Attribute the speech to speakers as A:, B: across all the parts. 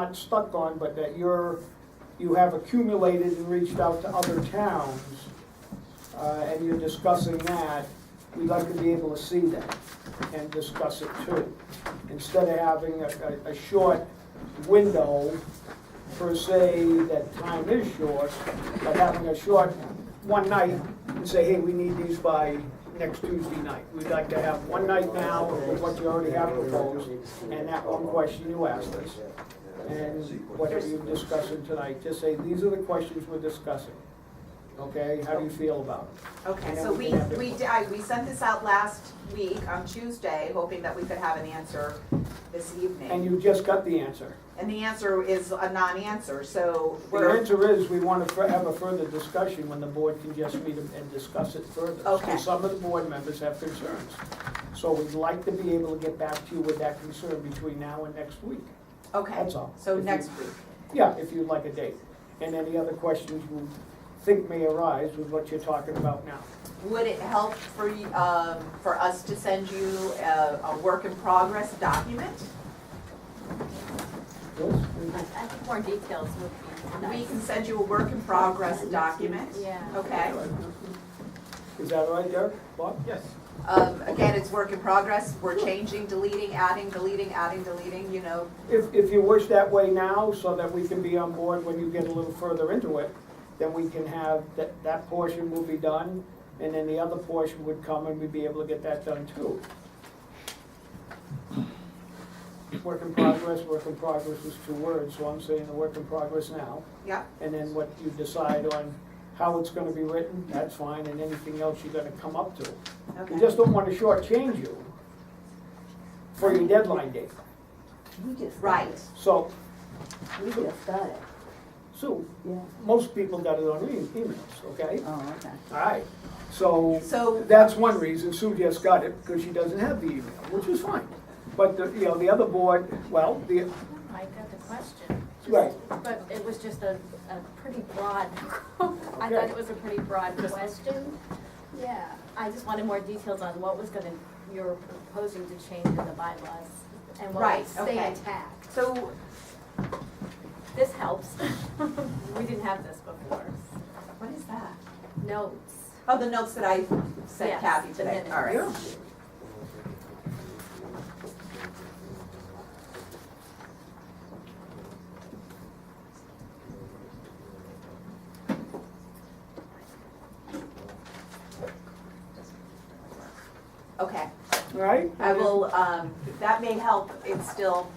A: not stuck on, but that you're, you have accumulated and reached out to other towns, uh, and you're discussing that, we'd like to be able to see that and discuss it too. Instead of having a, a, a short window per se, that time is short, but having a short one night and say, hey, we need these by next Tuesday night. We'd like to have one night now with what you already have proposed, and that one question you asked us and whatever you're discussing tonight, just say, these are the questions we're discussing. Okay, how do you feel about it?
B: Okay, so we, we, d- I- we sent this out last week on Tuesday, hoping that we could have an answer this
A: And
B: evening.
A: you just got the answer.
B: And the answer is a non-answer, so
A: The
B: we're,
A: answer is, we want to have a further discussion when the board can just meet and discuss it further.
B: Okay.
A: Some of the board members have concerns, so we'd like to be able to get back to you with that concern between now and next week.
B: okay,
A: That's all.
B: so
A: If you-
B: next week.
A: Yeah, if you'd like a date. And any other questions you think may arise with what you're talking about now.
B: Would it help for, y- um, for us to send you a, a work in progress document?
A: Yes?
C: I I think more details would be
B: We
C: nice.
B: can send you a work in progress document?
C: Yeah.
B: Okay.
A: Is that all right, Derek? Bob? Yes.
B: Um, again, it's work in progress, we're changing, deleting, adding, deleting, adding, deleting, you know,
A: If, if you wish that way now, so that we can be on board when you get a little further into it, then we can have, that, that portion will be done, and then the other portion would come and we'd be able to get that done too. Work in progress, work in progress is two words, so I'm saying the work in progress now.
B: yeah.
A: And then what you decide on how it's gonna be written, that's fine, and anything else you're gonna come up to. We
B: Okay.
A: just don't wanna shortchange you for your deadline date.
D: We just. got
B: Right,
D: it.
A: So,
D: We just got it,
A: so,
D: yeah.
A: most people got it on e- emails, okay?
D: Oh, okay.
A: Alright, so,
B: So-
A: that's one reason Sue just got it, because she doesn't have the email, which is fine. But, the- you know, the other board, well, the,
C: I got the question.
A: Right.
C: But it was just a, a pretty broad, I thought
A: Okay.
C: it was a pretty broad question. Yeah, I just wanted more details on what was gonna, you were proposing to change in the bylaws and what
B: Right,
C: would stay
B: okay.
C: intact.
B: so,
C: This helps. We didn't have this before.
B: what is that?
C: Notes.
B: Oh, the notes that I sent
C: Yes,
B: Kathy
C: the
B: today,
C: minutes.
B: all right.
A: yeah,
B: Okay,
A: alright?
B: I will, um, that may help, it's still,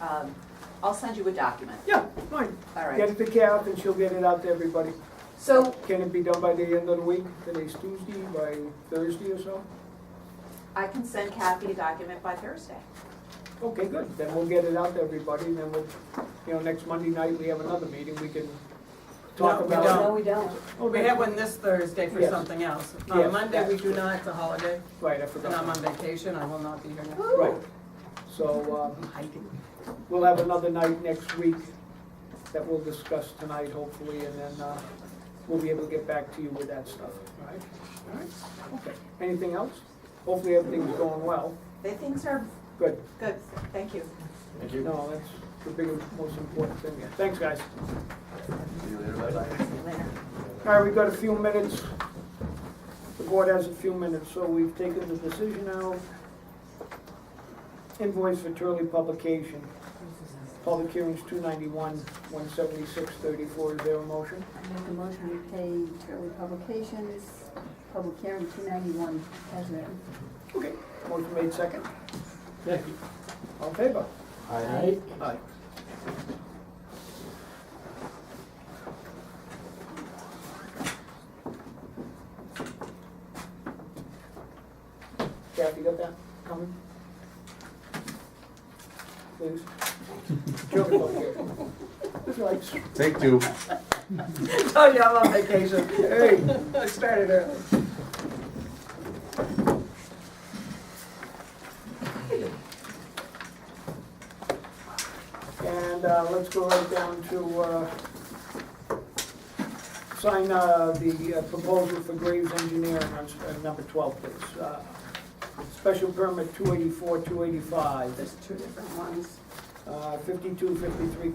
B: um, I'll send you a document,
A: Yeah, fine,
B: all
A: get
B: right.
A: it to Kath and she'll get it out to everybody.
B: So,
A: Can it be done by the end of the week, today's Tuesday, by Thursday or so?
B: I can send Kathy a document by Thursday.
A: Okay, good, then we'll get it out to everybody, and then we'll, you know, next Monday night, we have another meeting, we can talk
E: No, we
A: about. Oh,
E: don't.
D: Oh, No, we don't.
E: We have one this Thursday for
A: Yes.
E: something else.
A: Yes.
E: On Monday, we do not, it's a holiday,
A: Right, I
E: and
A: forgot.
E: I'm on vacation, I will not be here next.
A: Right, so, um, we'll have another night next week that we'll discuss tonight, hopefully, and then, uh, we'll be able to get back to you with that stuff, all right? All right, okay. Anything else? Hopefully everything's going well.
B: The things are
A: Good.
B: good, thank you.
F: Thank you.
A: No, that's the biggest, most important thing here. Thanks, guys.
F: See you later, bye-bye.
A: All right, we've got a few minutes. The board has a few minutes, so we've taken the decision out. Invoice for Turley Publication. Public hearings two ninety-one, one seventy-six, thirty-four. Is there a motion?
D: I make a motion to pay Turley Publications, public hearing two ninety-one as written.
A: Okay. Motion made second. All in favor?
D: Aye.
A: Aye. Jeff, you got that coming? Please. Joke about here. It's like,
F: Take two.
E: Oh, yeah, I'm on vacation.
A: hey.
E: I started early.
A: And uh, let's go right down to uh, sign uh, the uh, proposal for Graves Engineering on s- uh, number 12, please. Uh, Special permit 284, 285.
E: There's two different ones.
A: uh, 52, 53